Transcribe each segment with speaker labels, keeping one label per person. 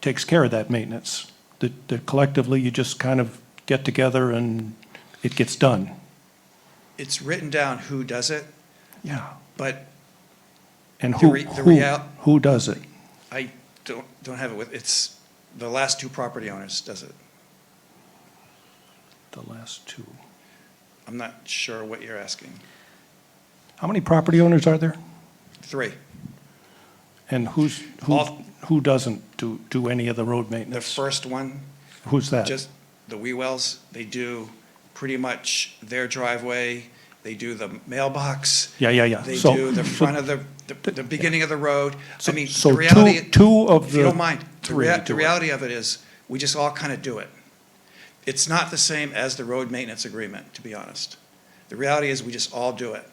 Speaker 1: takes care of that maintenance. That that collectively, you just kind of get together and it gets done.
Speaker 2: It's written down who does it,
Speaker 1: Yeah.
Speaker 2: but
Speaker 1: And
Speaker 2: The
Speaker 1: who,
Speaker 2: re- the
Speaker 1: who,
Speaker 2: real-
Speaker 1: who does it?
Speaker 2: I don't, don't have it with, it's the last two property owners does it.
Speaker 1: The last two.
Speaker 2: I'm not sure what you're asking.
Speaker 1: How many property owners are there?
Speaker 2: Three,
Speaker 1: And who's, who,
Speaker 2: All-
Speaker 1: who doesn't do, do any of the road
Speaker 2: the
Speaker 1: maintenance?
Speaker 2: first one,
Speaker 1: Who's that?
Speaker 2: just the Wewells, they do pretty much their driveway, they do the mailbox,
Speaker 1: Yeah, yeah, yeah.
Speaker 2: they
Speaker 1: So-
Speaker 2: do the
Speaker 1: so-
Speaker 2: front of the, the, the beginning of the road. I
Speaker 1: So-
Speaker 2: mean,
Speaker 1: so
Speaker 2: the reality.
Speaker 1: two- two of
Speaker 2: If you
Speaker 1: the
Speaker 2: don't mind, the
Speaker 1: three
Speaker 2: rea-
Speaker 1: do
Speaker 2: the
Speaker 1: it.
Speaker 2: reality of it is, we just all kind of do it. It's not the same as the road maintenance agreement, to be honest. The reality is, we just all do it.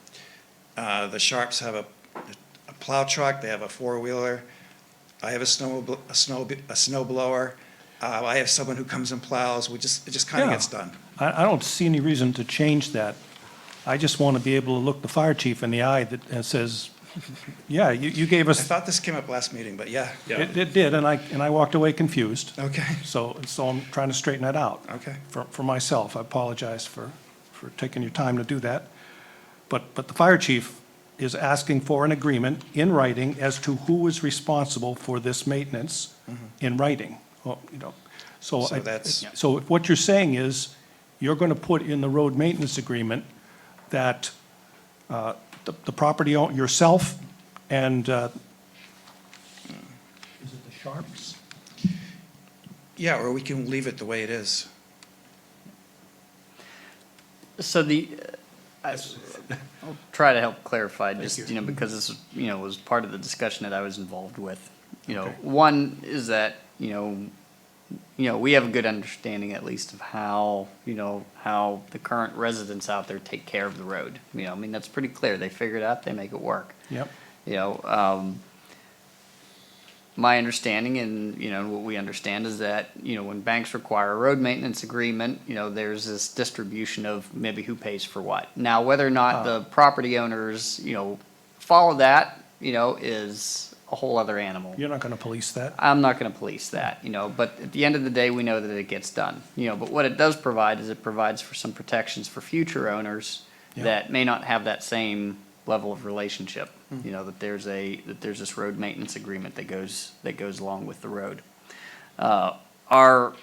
Speaker 2: Uh, the Sharps have a, a plow truck, they have a four-wheeler. I have a snow, bl- a snow, a snow blower. Uh, I have someone who comes and plows. We just, it just kind of
Speaker 1: Yeah.
Speaker 2: gets done.
Speaker 1: I, I don't see any reason to change that. I just want to be able to look the fire chief in the eye that and says, yeah, you, you gave
Speaker 2: I
Speaker 1: us,
Speaker 2: thought this came up last meeting, but yeah.
Speaker 1: it, it did, and I, and I walked away confused.
Speaker 2: Okay.
Speaker 1: So, so I'm trying to straighten that out.
Speaker 2: Okay.
Speaker 1: For, for myself, I apologize for, for taking your time to do that. But, but the fire chief is asking for an agreement in writing as to who is responsible for this maintenance in writing, Well, you know. So
Speaker 2: Mm-hmm. So
Speaker 1: I-
Speaker 2: that's-
Speaker 1: So if what you're saying is, you're going to put in the road maintenance agreement that uh, the the property, own- yourself and, uh, is it the Sharps?
Speaker 2: Yeah, or we can leave it the way it is.
Speaker 3: So the, uh, I- I'll try to help clarify, just, you know, because this, you know, was part of the discussion that I was involved with. You know,
Speaker 1: Okay.
Speaker 3: one is that, you know, you know, we have a good understanding at least of how, you know, how the current residents out there take care of the road. You know, I mean, that's pretty clear. They figure it out, they make it work.
Speaker 1: Yep.
Speaker 3: You know, um, my understanding and, you know, what we understand is that, you know, when banks require a road maintenance agreement, you know, there's this distribution of maybe who pays for what. Now, whether or not the property owners, you know, follow that, you know, is a whole other animal.
Speaker 1: You're not going to police that.
Speaker 3: I'm not going to police that, you know, but at the end of the day, we know that it gets done, you know, but what it does provide is it provides for some protections for future owners
Speaker 1: Yeah.
Speaker 3: that may not have that same level of relationship, you know, that there's a, that there's this road maintenance agreement that goes, that goes along with the road. Uh, our,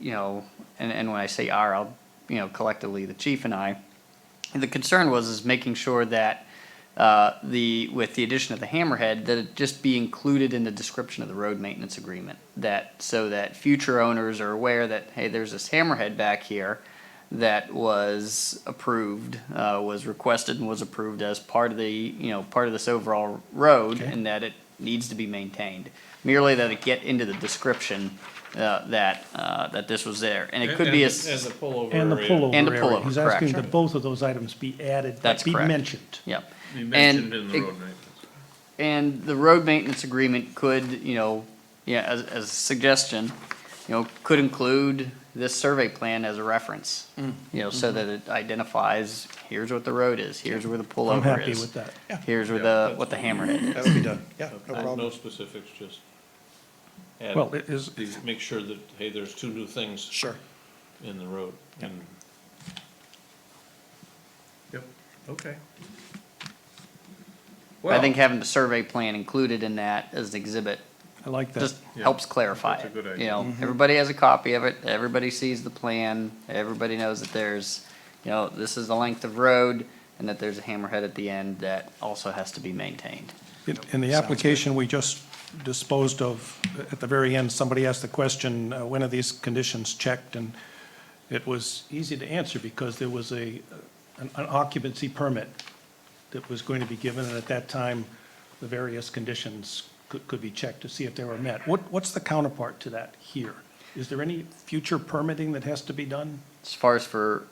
Speaker 3: you know, and, and when I say our, I'll, you know, collectively, the chief and I, the concern was is making sure that uh, the with the addition of the hammerhead that it just be included in the description of the road maintenance agreement that so that future owners are aware that hey there's this hammerhead back here that was approved uh, was requested and was approved as part of the you know part of this overall road
Speaker 1: Okay.
Speaker 3: and that it needs to be maintained merely that it get into the description uh, that uh, that this was there and it could be a s-
Speaker 4: As a pullover.
Speaker 1: And the
Speaker 4: area.
Speaker 1: pullover
Speaker 3: And the
Speaker 1: area.
Speaker 3: pullover,
Speaker 1: He's
Speaker 3: correct.
Speaker 1: asking that both of those items be added,
Speaker 3: That's
Speaker 1: be
Speaker 3: correct.
Speaker 1: mentioned.
Speaker 3: yep
Speaker 4: You
Speaker 3: And
Speaker 4: mentioned it in the
Speaker 3: it-
Speaker 4: road maintenance.
Speaker 3: And the road maintenance agreement could, you know, yeah, as, as a suggestion, you know, could include this survey plan as a reference.
Speaker 1: Mm.
Speaker 3: You know,
Speaker 4: Mm-hmm.
Speaker 3: so that it identifies, here's what the road is, here's where the pullover is.
Speaker 1: happy with that.
Speaker 2: Yeah.
Speaker 3: Here's where
Speaker 4: Yeah,
Speaker 3: the,
Speaker 4: that's
Speaker 3: what the hammerhead
Speaker 2: That
Speaker 3: is.
Speaker 2: would be done. Yeah, no
Speaker 4: No- No
Speaker 2: problem.
Speaker 4: specifics, just add,
Speaker 1: Well, it is,
Speaker 4: these- make sure that, hey, there's two new things
Speaker 2: Sure.
Speaker 4: in the road. and- Yep, okay.
Speaker 3: I think having the survey plan included in that as an exhibit
Speaker 1: I like that.
Speaker 3: just
Speaker 4: Yeah.
Speaker 3: helps clarify
Speaker 4: That's a good
Speaker 3: it. You
Speaker 4: idea.
Speaker 3: know, everybody has a copy of it, everybody sees the plan, everybody knows that there's, you know, this is the length of road and that there's a hammerhead at the end that also has to be maintained.
Speaker 1: In- In the application we just disposed of, at the very end, somebody asked the question, uh, when are these conditions checked? And it was easy to answer because there was a, an an occupancy permit that was going to be given, and at that time, the various conditions could, could be checked to see if they were met. What, what's the counterpart to that here? Is there any future permitting that has to be done?
Speaker 3: As far as for,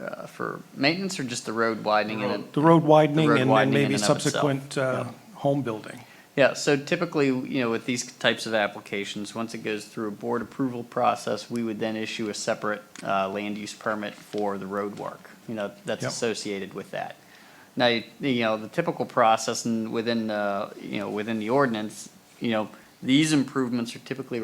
Speaker 3: uh, for maintenance or just the road widening and
Speaker 1: The road widening and then
Speaker 3: widening in
Speaker 1: maybe
Speaker 3: and of itself,
Speaker 1: subsequent uh, home building.
Speaker 3: Yeah, so typically, you know, with these types of applications, once it goes through a board approval process, we would then issue a separate uh, land use permit for the road work, you know, that's
Speaker 1: Yep.
Speaker 3: associated with that. Now, you you know, the typical uh, process and within, the you know, within the ordinance, you know, these improvements are typically